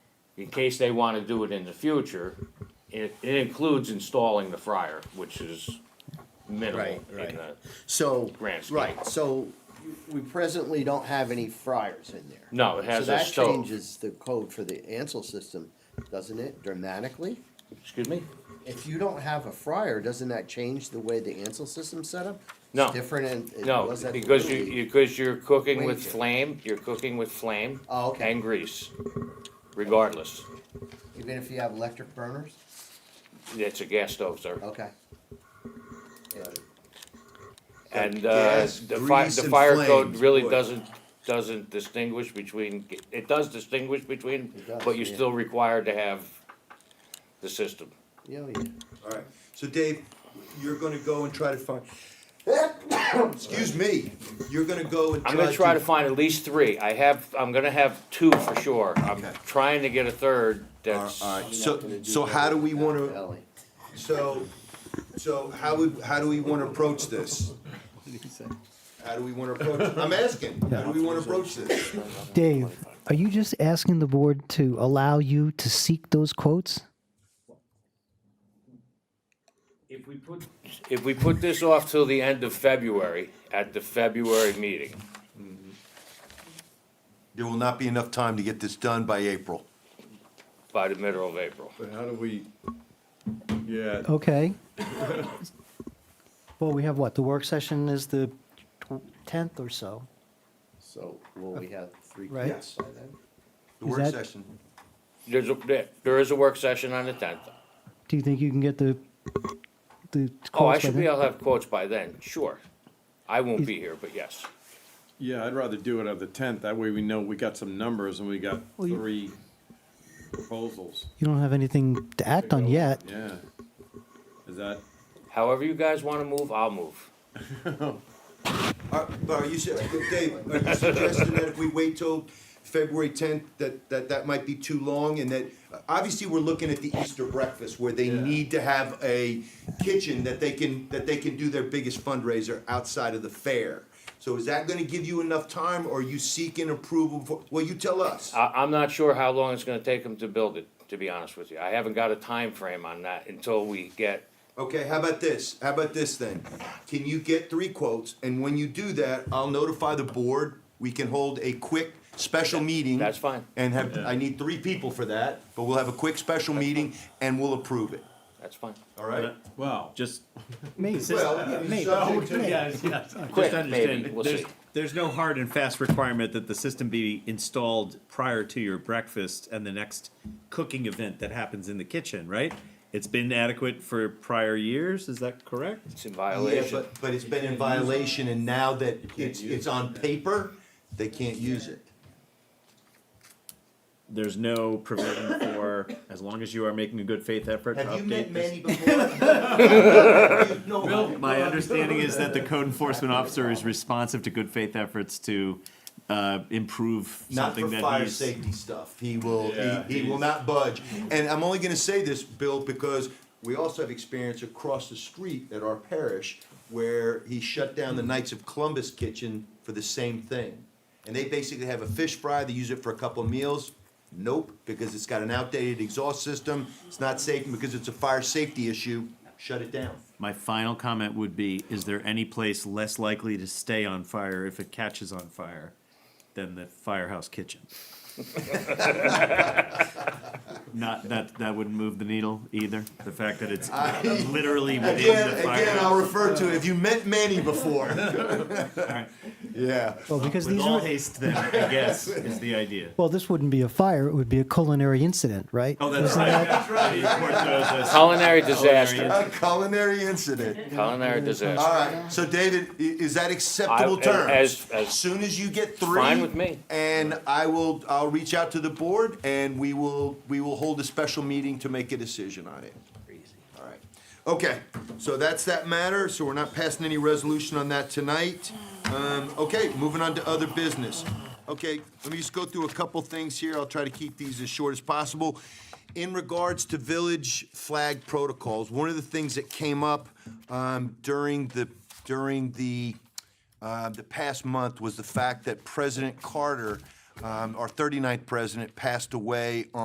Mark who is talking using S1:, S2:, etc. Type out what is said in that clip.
S1: in case they wanna do it in the future, it, it includes installing the fryer, which is minimal
S2: Right,
S1: in
S2: right.
S1: the,
S2: So,
S1: Grand scheme.
S2: right, so we presently don't have any fryers in there.
S1: No, it has a
S2: So that
S1: stove.
S2: changes the code for the Ansel system, doesn't it, dramatically?
S1: excuse me?
S2: If you don't have a fryer, doesn't that change the way the Ansel system's set up?
S1: No.
S2: It's different and it
S1: No,
S2: was at the
S1: because you,
S2: Little League.
S1: you, because you're cooking with
S2: Wait.
S1: flame, you're cooking with flame.
S2: Oh, okay.
S1: And grease, regardless,
S2: Even if you have electric burners?
S1: it's a gas stove, sir.
S2: Okay. Yeah.
S1: And, uh,
S3: Gas,
S1: the fire,
S3: grease,
S1: the
S3: and
S1: fire code
S3: flames,
S1: really
S3: boy.
S1: doesn't, doesn't distinguish between, it does distinguish between,
S2: It does,
S1: but you're
S2: yeah.
S1: still required to have the system.
S2: Yeah, yeah.
S3: All right, so Dave, you're gonna go and try to find, excuse me, you're gonna go and try
S1: I'm
S3: to.
S1: gonna try to find at least three, I have, I'm gonna have two for sure, I'm
S3: Okay.
S1: trying to get a third
S3: All
S1: that's,
S3: right, so, so how do we wanna,
S2: Ellie.
S3: so, so how would, how do we wanna approach this? How do we wanna approach, I'm asking, how do we wanna approach this?
S4: Dave, are you just asking the board to allow you to seek those quotes?
S1: If we put, if we put this off till the end of February, at the February meeting,
S3: There will not be enough time to get this done by April.
S1: by the middle of April.
S5: But how do we, yeah,
S4: Okay. Well, we have what, the work session is the tw- 10th or so,
S2: So will we have three
S4: Right.
S2: kids by then?
S3: The
S4: Is
S3: work
S4: that-
S3: session,
S1: There's a, there- there is a work session on the tenth.
S4: do you think you can get the, the quotes?
S1: Oh, I
S4: by
S1: should
S4: then?
S1: be, I'll have quotes by then, sure. I won't be here, but yes.
S5: yeah, I'd rather do it on the tenth, that way we know we got some numbers and we got
S4: Well, you-
S5: three proposals,
S4: You don't have anything to act on yet.
S5: yeah. Is that,
S1: However you guys wanna move, I'll move.
S3: Are- But are Uh, you, su- Dave, are you suggesting that if we wait till February tenth, that, that that might be too long, and that, uh, obviously, we're looking at the Easter breakfast, where they
S5: Yeah.
S3: need to have a kitchen that they can, that they can do their biggest fundraiser outside of the fair. So is that gonna give you enough time, or are you seeking approval for, well, you tell us.
S1: I, I'm not sure how long it's gonna take them to build it, to be honest with you. I haven't got a time frame on that until we get,
S3: Okay, how about this, how about this then? Can you get three quotes, and when you do that, I'll notify the board, we can hold a quick special meeting.
S1: that's fine.
S3: And have, I need three people for that, but we'll have a quick special meeting and we'll approve it,
S1: that's fine.
S3: all right?
S5: well, just,
S4: Maybe.
S3: Well,
S4: Maybe.
S3: so-
S6: Yes, yes.
S1: Quick,
S6: Just
S1: maybe.
S6: understand,
S1: We'll
S6: there's,
S1: see.
S6: there's no hard and fast requirement that the system be installed prior to your breakfast and the next cooking event that happens in the kitchen, right? It's been adequate for prior years, is that correct?
S1: It's in
S3: Yeah,
S1: violation.
S3: but, but it's been in violation and now that it's,
S5: use
S3: it's on paper, they can't use it.
S6: There's no provision for, as long as you are making a good faith effort to
S3: Have you met
S6: update this.
S3: Manny before? No.
S6: My understanding is that the code enforcement officer is responsive to good faith efforts to, uh, improve
S3: Not for
S6: something that he's.
S3: fire safety stuff. He will,
S5: Yeah,
S3: he, he will
S5: he's-
S3: not budge. And I'm only gonna say this, Bill, because we also have experience across the street at our parish where he shut down the Knights of Columbus kitchen for the same thing. And they basically have a fish fry, they use it for a couple of meals. Nope, because it's got an outdated exhaust system, it's not safe, and because it's a fire safety issue, shut it down.
S6: My final comment would be, is there any place less likely to stay on fire if it catches on fire than the firehouse kitchen? Not, that, that wouldn't move the needle either, the fact that it's literally within
S3: Again,
S6: the
S3: again, I'll
S6: firehouse.
S3: refer to, it. have you met Manny before?
S6: right.
S3: Yeah.
S4: Well, because
S6: With
S4: these
S6: all
S4: are,
S6: haste then, I guess, is the idea.
S4: well, this wouldn't be a fire, it would be a culinary incident, right?
S6: Oh, that's right, that's right.
S1: Culinary disaster,
S3: A culinary incident.
S1: culinary
S3: All
S1: disaster.
S3: right, so David, i- is that acceptable
S1: I-
S3: terms?
S1: as- as-
S3: Soon as you get three.
S1: Fine with me.
S3: And I will, I'll reach out to the board and we will, we will hold a special meeting to make a decision on it. All right, okay, so that's that matter, so we're not passing any resolution on that tonight. Um, okay, moving on to other business. Okay, let me just go through a couple things here, I'll try to keep these as short as possible. In regards to village flag protocols, one of the things that came up, um, during the, during the, uh, the past month was the fact that President Carter, um, our 39th president, passed away on.